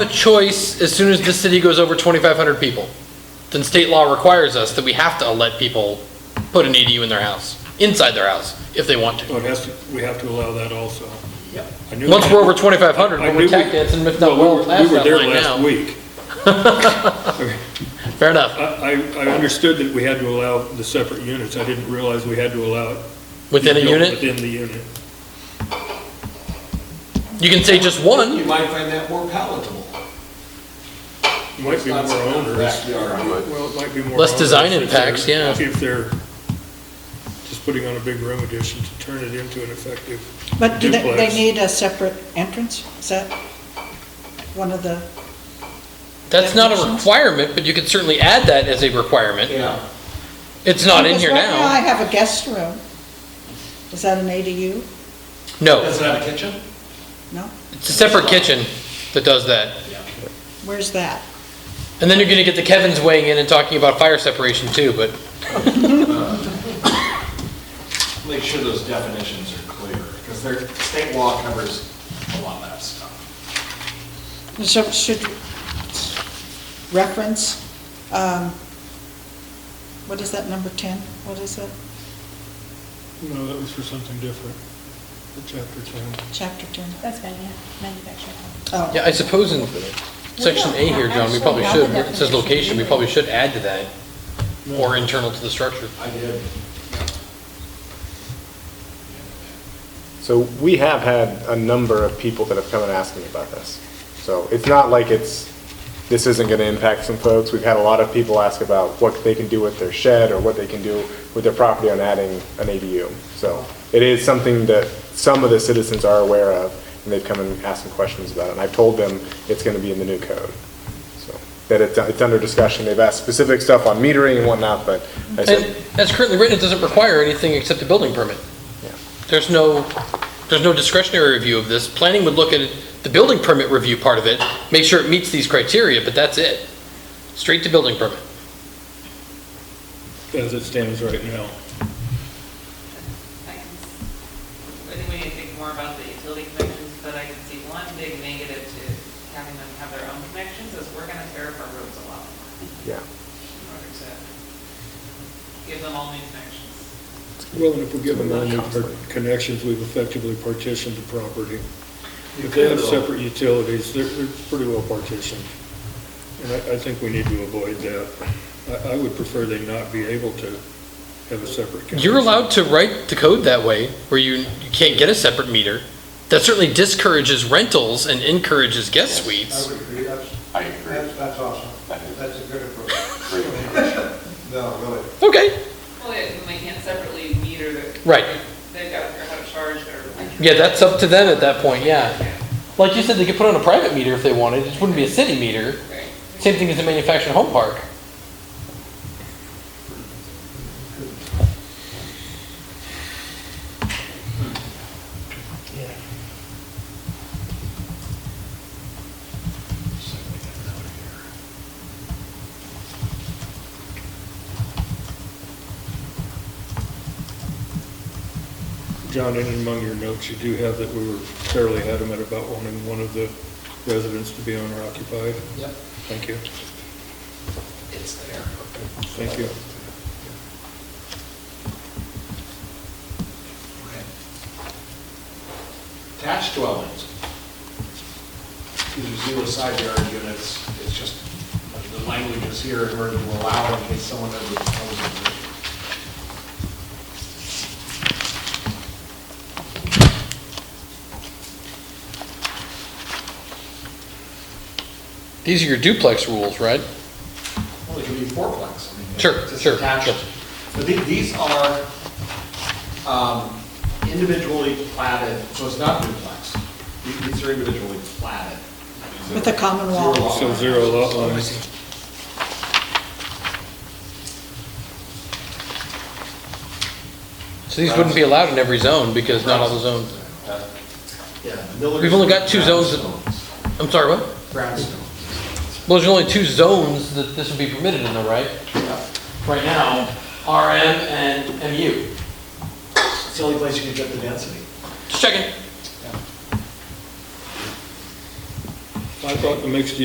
a choice as soon as the city goes over 2,500 people. Then state law requires us that we have to let people put an ADU in their house, inside their house, if they want to. Well, it has to, we have to allow that also. I knew Once that. we're over 2,500, I we're knew we- tech dancing, if Well, not we well, were- past that We were line there last now. week. Fair enough, I, I I understood that we had to allow the separate units. I didn't realize we had to allow it. within a you know, unit. Within the unit. You can say just one, You might find that more palatable. It Might be more Not something in the onerous. backyard. Well, it might be more. Less design onerous if they're- impacts, yeah. If they're just putting on a big room addition to turn it into an effective But do they, they Duplex. need a separate entrance? Is that one of the, that's not a Definitions? requirement, but you can certainly add that as a requirement. Yeah, It's not in here Because right I now. have a guest room. Is that an ADU? No, is that a kitchen? No? it's a separate kitchen that does that. Where's that? And then you're gonna get the Kevins weighing in and talking about fire separation too, but Make sure those definitions are clear, because their state law covers a lot of that stuff. So should reference, um, what is that, number 10? What is it? No, that was for something different, for chapter 10. Chapter 10? That's manu- manufactured home. Oh. Yeah, I suppose in section A here, John, we probably should, where it says location, we probably should add to that, or internal to the structure. I did. So we have had a number of people that have come and asked me about this. So it's not like it's, this isn't going to impact some folks. We've had a lot of people ask about what they can do with their shed or what they can do with their property on adding an ADU. So it is something that some of the citizens are aware of, and they've come and asked some questions about it. And I've told them it's going to be in the new code. So That it's, it's under discussion. They've asked specific stuff on metering and whatnot, but I And said, as currently written, it doesn't require anything except a building permit. Yeah. There's no, there's no discretionary review of this. Planning would look at the building permit review part of it, make sure it meets these criteria, but that's it. Straight to building permit. As it stands right now. I can s- I think we need to think more about the utility connections, but I can see one big negative to having them have their own connections is we're gonna tear up our roads a lot more yeah. in order to give them all new connections. Well, and if we give them all new par- connections, we've effectively partitioned the property. You If they have could, though. separate utilities, they're, they're pretty well partitioned. And I, I think we need to avoid that. I, I would prefer they not be able to have a separate. connection. You're allowed to write the code that way, where you, you can't get a separate meter. That certainly discourages rentals and encourages guest suites. I would agree, that's, I agree. that's, that's awesome. That is- That's a good approach. Great. No, really. Okay, Well, yeah, and they can't separately meter the. Right. They've gotta figure out how to charge their. yeah, that's up to them at that point, yeah. Like you said, they could put on a private meter if they wanted, it wouldn't be a city meter. Right. Same thing as a manufactured home park. John, in among your notes, you do have that we were fairly adamant about wanting one of the residents to be owner occupied. Yep. Thank you, It's there. thank you. Okay. Attached dwellings. These are zero side yard units, it's just, the language is here in order to allow in case someone ever proposes it. These are your duplex rules, right? Well, it could be fourplex. I mean, Sure, it's just sure, attached. sure. But the- these are um, individually platted, so it's not duplex. The- These are individually platted. With a common wall. Zero lot So lines. zero lot lines. So these wouldn't be allowed in every zone because not all the zones. Yeah. the Millers- We've only got two zones that- Brownstones. I'm sorry, what? Brownstone. Well, there's only two zones that this would be permitted in though, right? Right now, RM and MU. It's the only place you can get the density. Just checking. I thought the mixed